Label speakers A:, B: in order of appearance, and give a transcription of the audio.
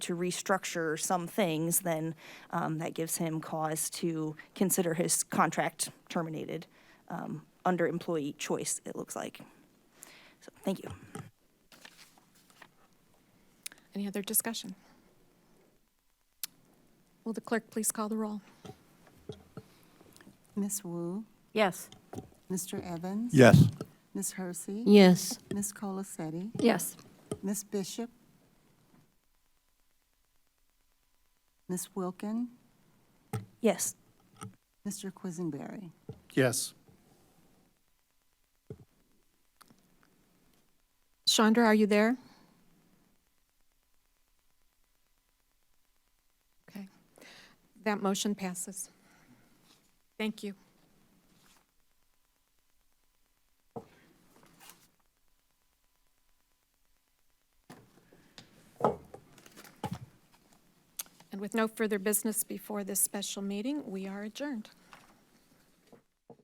A: to restructure some things, then um, that gives him cause to consider his contract terminated um, under employee choice, it looks like. So, thank you.
B: Any other discussion? Will the clerk please call the roll?
C: Miss Wu,
D: Yes.
C: Mr. Evans?
E: Yes.
C: Ms. Hersey?
D: Yes.
C: Ms. Colacetti?
D: Yes.
C: Ms. Bishop? Ms. Wilkin?
A: Yes,
C: Mr. Quisenberry?
E: Yes.
B: Chandra, are you there? Okay. That motion passes. Thank you. And with no further business before this special meeting, we are adjourned.